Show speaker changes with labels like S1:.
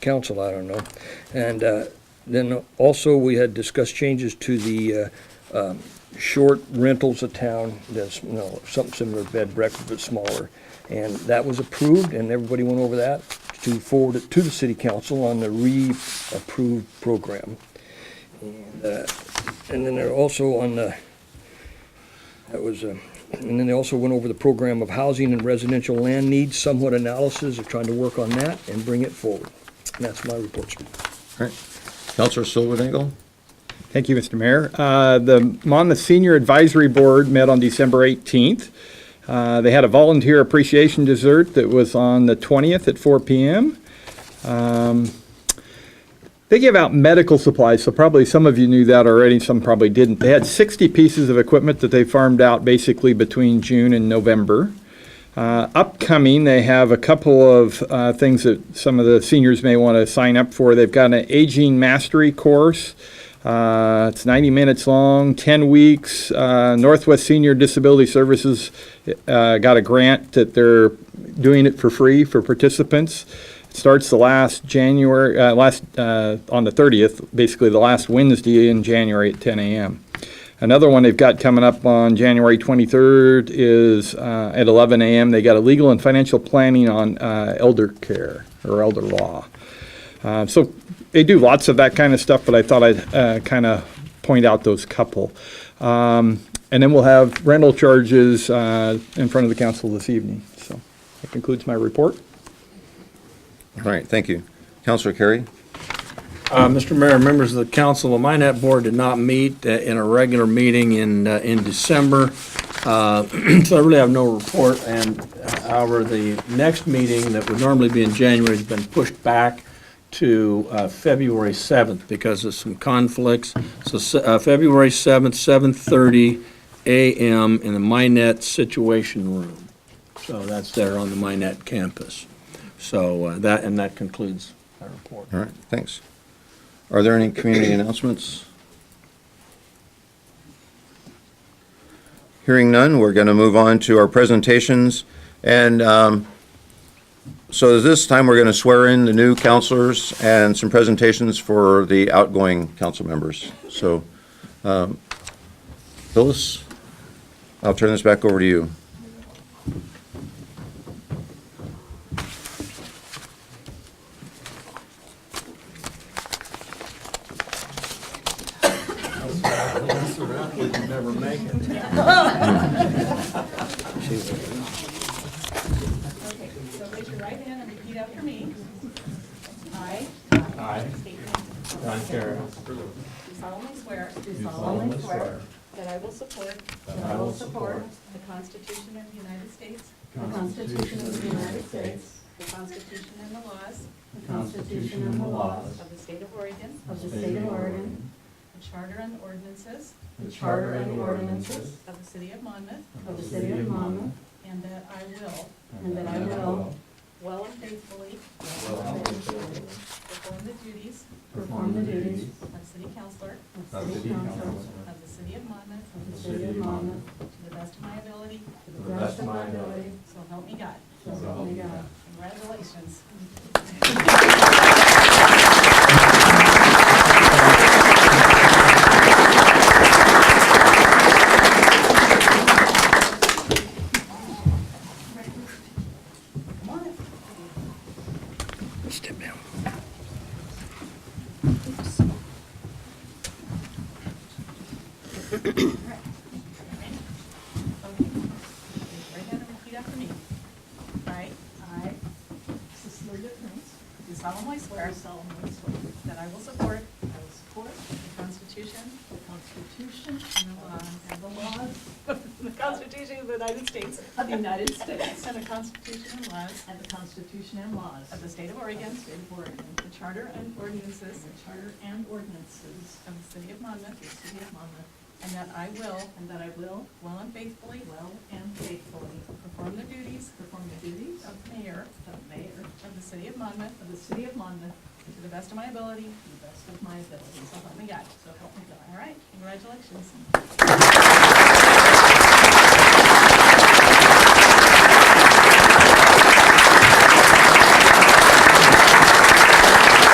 S1: council, I don't know. And uh, then also, we had discussed changes to the uh, um, short rentals of town, that's, you know, something similar to bed and breakfast, but smaller. And that was approved, and everybody went over that to forward it to the city council on the re-approved program. And, uh, And then they're also on the, that was, uh, and then they also went over the program of housing and residential land needs, somewhat analysis, they're trying to work on that and bring it forward. And that's my report, sir.
S2: right. Counselor Silverdangle?
S3: Thank you, Mr. Mayor. Uh, The Monmouth Senior Advisory Board met on December 18th. Uh, They had a volunteer appreciation dessert that was on the 20th at 4 PM. Um, They give out medical supplies, so probably some of you knew that already, some probably didn't. They had 60 pieces of equipment that they farmed out basically between June and November. Uh, Upcoming, they have a couple of uh, things that some of the seniors may want to sign up for. They've got an aging mastery course. Uh, It's 90 minutes long, 10 weeks. Uh, Northwest Senior Disability Services uh, got a grant that they're doing it for free for participants. It Starts the last January, uh, last, uh, on the 30th, basically the last Wednesday in January at 10 a.m. Another one they've got coming up on January 23rd is uh, at 11 a.m. They got a legal and financial planning on uh, elder care or elder law. Uh, so they do lots of that kind of stuff, but I thought I'd uh, kind of point out those couple. Um, and then we'll have rental charges uh, in front of the council this evening. So that concludes my report.
S2: All right, thank you. Counselor Carey?
S4: Uh, Mr. Mayor, members of the council, the Minnet Board did not meet uh, in a regular meeting in, uh, in December, Uh, so I really have no report, and uh, however, the next meeting that would normally be in January has been pushed back to uh, February 7th because of some conflicts. So se- uh, February 7th, 7:30 a.m. in the Minnet Situation Room. So that's there on the Minnet campus. So uh, that, and that concludes my report.
S2: All right, thanks. Are there any community announcements? Hearing none, we're going to move on to our presentations. And um, so this time, we're going to swear in the new counselors and some presentations for the outgoing council members. So um, Phyllis, I'll turn this back over to you.
S5: Okay, so raise your right hand and repeat after me. I. I. State your name.
S4: John Carroll.
S5: Do solemnly swear.
S4: Do solemnly swear.
S5: That I will support. That I will support. The Constitution of the United States. The Constitution of the United States. The Constitution and the laws. The Constitution and the laws. Of the state of Oregon. Of the state of Oregon. The charter and ordinances.
S6: The charter and ordinances
S5: Of the city of Monmouth.
S6: of the city of Monmouth,
S5: And that I will,
S6: and that I will
S5: well and faithfully. Perform the duties.
S6: perform the duties
S5: Of city councillor
S6: of city council
S5: of the city of Monmouth
S6: of the city of Monmouth
S5: to the best of my ability,
S6: to the best of my ability,
S5: so help me God.
S6: so help me God.
S5: Congratulations. Come on in.
S1: Step down.
S5: Okay. Raise your Right hand and repeat after me. I. I. Cecilia Prince. Do solemnly swear. solemnly swear. That I will support. I will support. The Constitution. The Constitution. And the laws. And the laws. The Constitution of the United States. Of the United States. And the Constitution and laws. And the Constitution and laws. Of the state of Oregon. state of Oregon. The charter and ordinances. The charter and ordinances. Of the city of Monmouth. The city of Monmouth. And that I will. And that I will. Well and faithfully. Well and faithfully. Perform the duties. Perform the duties. Of mayor. Of mayor. Of the city of Monmouth. Of the city of Monmouth. To the best of my ability. To the best of my ability. So help me God. So help me God. All right, congratulations.